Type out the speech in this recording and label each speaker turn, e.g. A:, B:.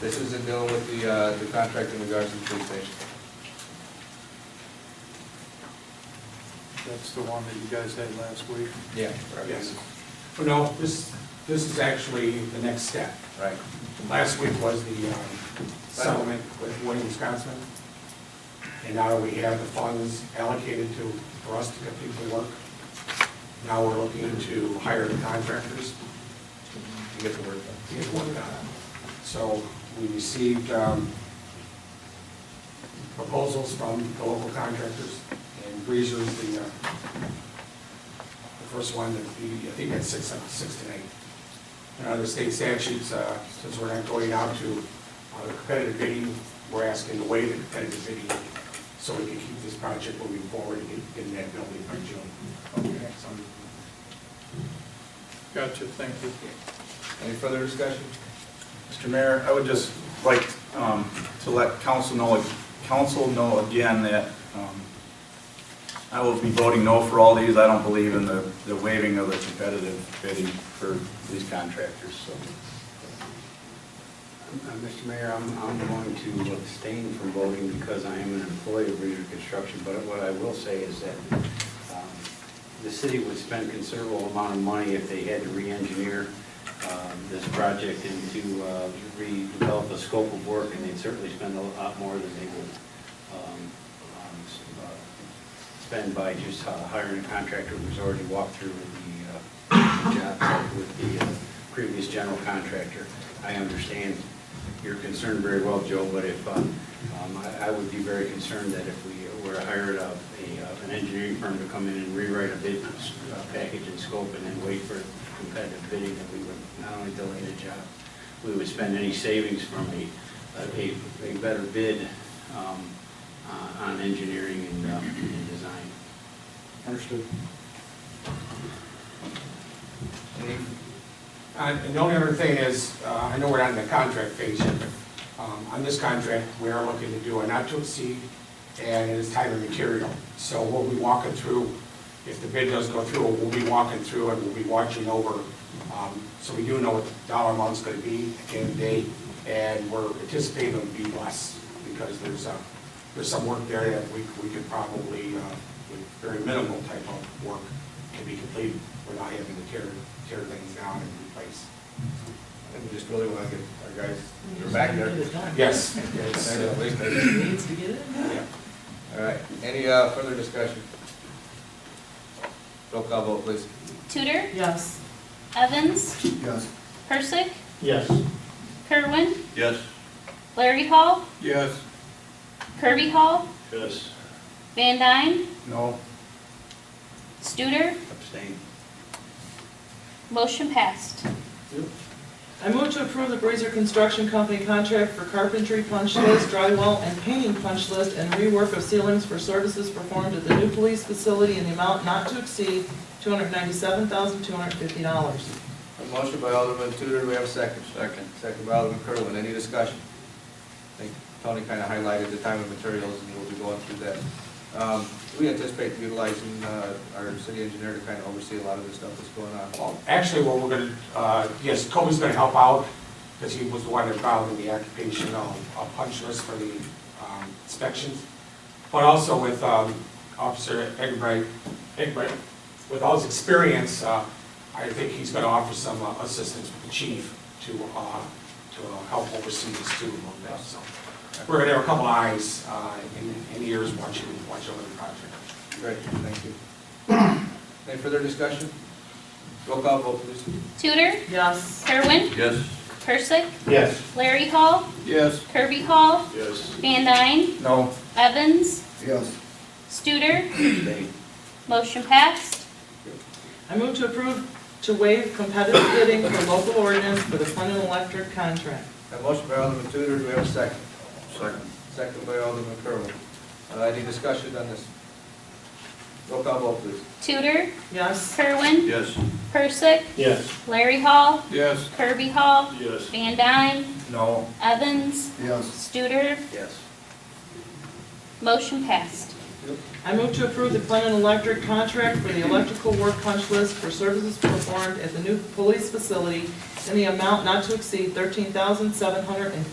A: This is in dealing with the, uh, the contract in regards to the police station.
B: That's the one that you guys had last week.
A: Yeah.
C: Yes. Well, no, this, this is actually the next step.
A: Right.
C: Last week was the um, settlement with Wayne, Wisconsin. And now we have the funds allocated to, for us to get people to work. Now we're looking to hire the contractors
A: You get the word.
C: to get work done. So we received um, proposals from the local contractors, and Breezer's the, uh, the first one, that we- I think that's six, uh, six to eight. And under state statutes, uh, since we're not going out to uh, competitive bidding, we're asking to waive the competitive bidding so we can keep this project moving forward and get- get in that building by June. Okay, so-
B: Gotcha, thank you.
A: Any further discussion?
D: Mr. Mayor, I would just like um, to let council know, council know again that um, I will be voting no for all these. I don't believe in the the waiving of the competitive bidding for these contractors, so.
E: Uh, Mr. Mayor, I'm, I'm going to abstain from voting because I am an employee of Reader Construction, but what I will say is that um, the city would spend considerable amount of money if they had to re-engineer um, this project and to uh, redevelop the scope of work, and they'd certainly spend a lot more than they would um, um, s- uh, spend by just uh, hiring a contractor who's already walked through the uh, job site with the uh, previous general contractor. I understand your concern very well, Joe, but if, uh, um, I I would be very concerned that if we were to hire a- a, uh, an engineering firm to come in and rewrite a bid uh, package and scope and then wait for competitive bidding, that we would not only delay the job, we would spend any savings from a, a a better bid um, on- on engineering and uh, and design.
C: Understood.
A: Any,
C: Uh, And the only other thing is, uh, I know we're not in the contract phase yet, but um, on this contract, we are looking to do a not to exceed, and it is time and material. So we'll be walking through, if the bid does go through, we'll be walking through and we'll be watching over. um, So we do know what the dollar amount's gonna be at the end of the day, and we're anticipating it'll be less, because there's, uh, there's some work there that we, we could probably, uh, with very minimal type of work, can be completed without having to tear, tear things down and replace.
A: and we just really want to get our guys, they're back there.
C: Yes.
A: Yes,
C: yes,
A: at
C: uh,
A: least they-
F: Needs to get in there.
C: yeah.
A: All right, any uh, further discussion? Roll call vote, please.
G: Tudor,
F: Yes.
G: Evans,
D: Yes.
G: Persick,
F: Yes.
G: Kerwin,
D: Yes.
G: Larry Hall,
B: Yes.
G: Kirby Hall,
D: Yes.
G: Van Dyne,
D: No.
G: Studer,
E: Abstain.
G: motion passed.
F: I move to approve the Brazier Construction Company contract for carpentry punch list, drywall, and painting punch list, and rework of ceilings for services performed at the new police facility in the amount not to exceed $297,250.
A: A motion by Alderman Tudor, do we have a second? Second. Second by Alderman Kerwin, any discussion? I think Tony kind of highlighted the time and materials, and we'll be going through that. Um, We anticipate utilizing uh, our city engineer to kind of oversee a lot of the stuff that's going on.
C: Well, Actually, what we're gonna, uh, yes, Kobe's gonna help out, because he was the one involved in the occupational uh, punch list for the um, inspections. But also with um, Officer Egbert, Egbert, with all his experience, uh, I think he's gonna offer some uh, assistance with the chief to, uh, to uh, help oversee this too, a little bit, so. We're gonna have a couple eyes uh, and and ears watching, watching over the project.
A: Great, thank you. Any further discussion? Roll call vote, please.
G: Tudor,
F: Yes.
G: Kerwin,
D: Yes.
G: Persick,
B: Yes.
G: Larry Hall,
D: Yes.
G: Kirby Hall,
D: Yes.
G: Van Dyne,
D: No.
G: Evans,
D: Yes.
G: Studer,
E: Abstain.
G: motion passed.
F: I move to approve to waive competitive bidding for local ordinance for the Clinton Electric contract.
A: A motion by Alderman Tudor, do we have a second?
D: Second.
A: Second by Alderman Kerwin. Uh, Any discussion on this? Roll call vote, please.
G: Tudor,
F: Yes.
G: Kerwin,
D: Yes.
G: Persick,
B: Yes.
G: Larry Hall,
B: Yes.
G: Kirby Hall,
D: Yes.
G: Van Dyne,
D: No.
G: Evans,
D: Yes.
G: Studer,
E: Yes.
G: motion passed.
F: I move to approve the Clinton Electric contract for the electrical work punch list for services performed at the new police facility in the amount not to exceed thirteen thousand seven hundred and fifty